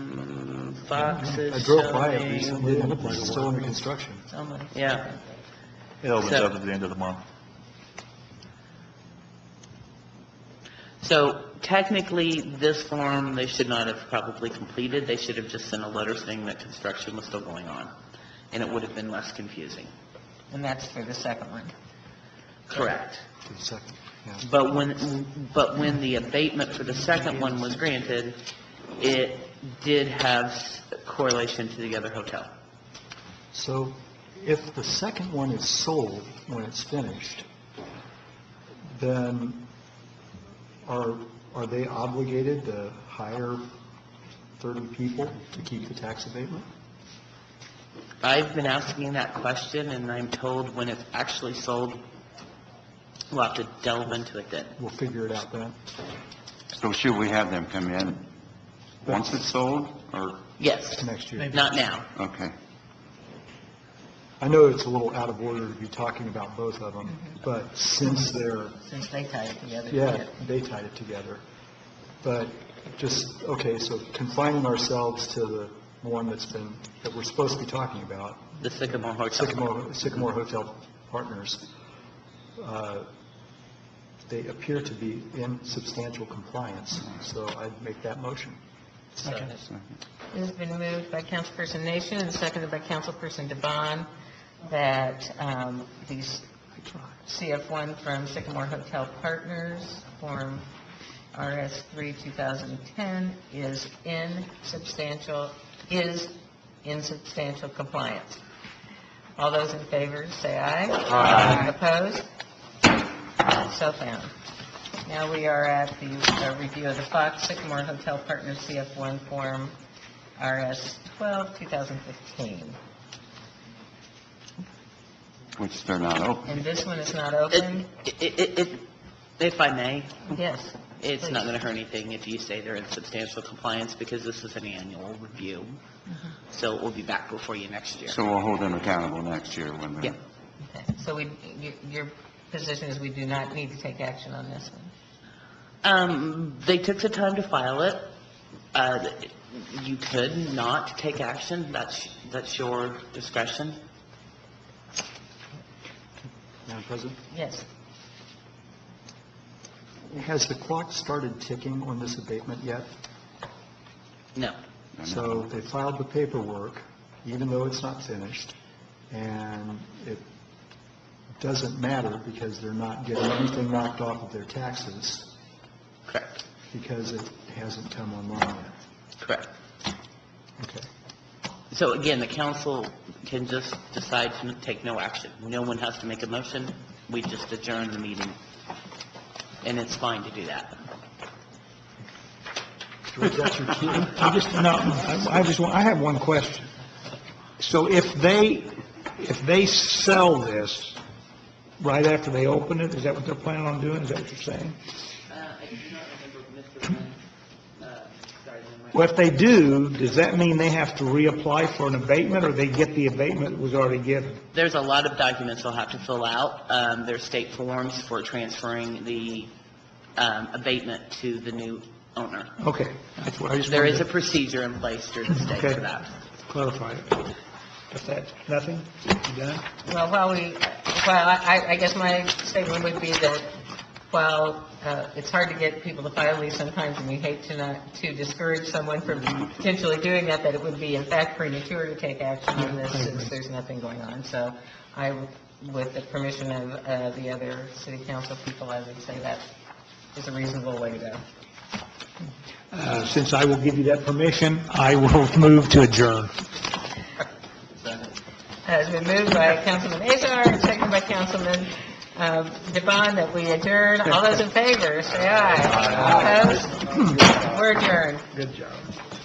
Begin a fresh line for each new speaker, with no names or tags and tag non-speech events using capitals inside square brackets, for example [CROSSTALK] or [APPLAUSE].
boxes
I
showing.
drove by it recently, and it's still under construction.
Someone- Yeah,
It opens
So-
up at the end of the month.
so technically, this form, they should not have probably completed, they should have just sent a letter saying that construction was still going on, and it would have been less confusing.
And that's for the second one.
Correct.
For the second, yeah.
But when, but when the abatement for the second one was granted, it did have correlation to the other hotel.
So if the second one is sold when it's finished, then are, are they obligated to hire 30 people to keep the tax abatement?
I've been asking that question, and I'm told when it's actually sold, we'll have to delve into it then.
We'll figure it out then.
So should we have them come in once it's sold, or,
Yes,
Next year.
not now.
okay.
I know it's a little out of order to be talking about both of them, but since they're,
Since they tied it together.
yeah, they tied it together. But just, okay, so confining ourselves to the one that's been, that we're supposed to be talking about,
The Sycamore Hotel.
Sycamore, Sycamore Hotel Partners, uh, they appear to be in substantial compliance, so I'd make that motion.
So-
It has been moved by Councilperson Nation and seconded by Councilperson Devon that um, these CF1 from Sycamore Hotel Partners, Form RS3 2010, is in substantial, is in substantial compliance. All those in favor, say aye. Aye. Opposed? So found. Now we are at the uh, review of the Fox Sycamore Hotel Partners CF1 Form RS 12, 2015.
Which they're not open.
And this one is not
It-
open?
it- it- it- If I may,
Yes.
it's
Please.
not going to hurt anything if you say they're in substantial compliance, because this is an annual review,
Mm-hmm.
so we'll be back before you next year.
So we'll hold them accountable next year when
Yeah.
they're...
Okay, So we, you- your position is we do not need to take action on this one?
Um, they took the time to file it. Uh, you could not take action, that's, that's your discretion.
Madam President?
Yes.
Has the clock started ticking on this abatement yet?
No.
they're not
So
open.
they filed the paperwork, even though it's not finished, and it doesn't matter because they're not getting anything knocked off of their taxes
Correct.
because it hasn't come online yet.
Correct.
Okay.
So again, the council can just decide to take no action. No one has to make a motion. We just adjourn the meeting. And it's fine to do that.
George, that's your cue.
I just, no, I I just, want- I have one question. So if they, if they sell this right after they open it, is that what they're planning on doing? Is that what you're saying?
I do not remember Mr. uh, sorry,
Well, if they do, does that mean they have to reapply for an abatement, or they get the abatement that was already given?
There's a lot of documents they'll have to fill out. Um, There's state forms for transferring the um, abatement to the new owner.
Okay, that's what I just
There
wanted
is a
to
procedure in place through the state
Okay.
for that.
clarify it. If that's nothing, you done?
Well, while we, well, I, I guess my statement would be that while uh, it's hard to get people to file these sometimes, and we hate to not, to discourage someone from potentially doing that, that it would be in fact premature to take action on this since there's nothing going on. So I, with the permission of uh, the other city council people, I would say that is a reasonable way to go.
Uh, Since I will give you that permission, I will [LAUGHS] move to adjourn.
Has been moved by Councilman Azar and seconded by Councilman um, Devon that we adjourn. All those in favor, say aye. Opposed? We're adjourned.
Good job.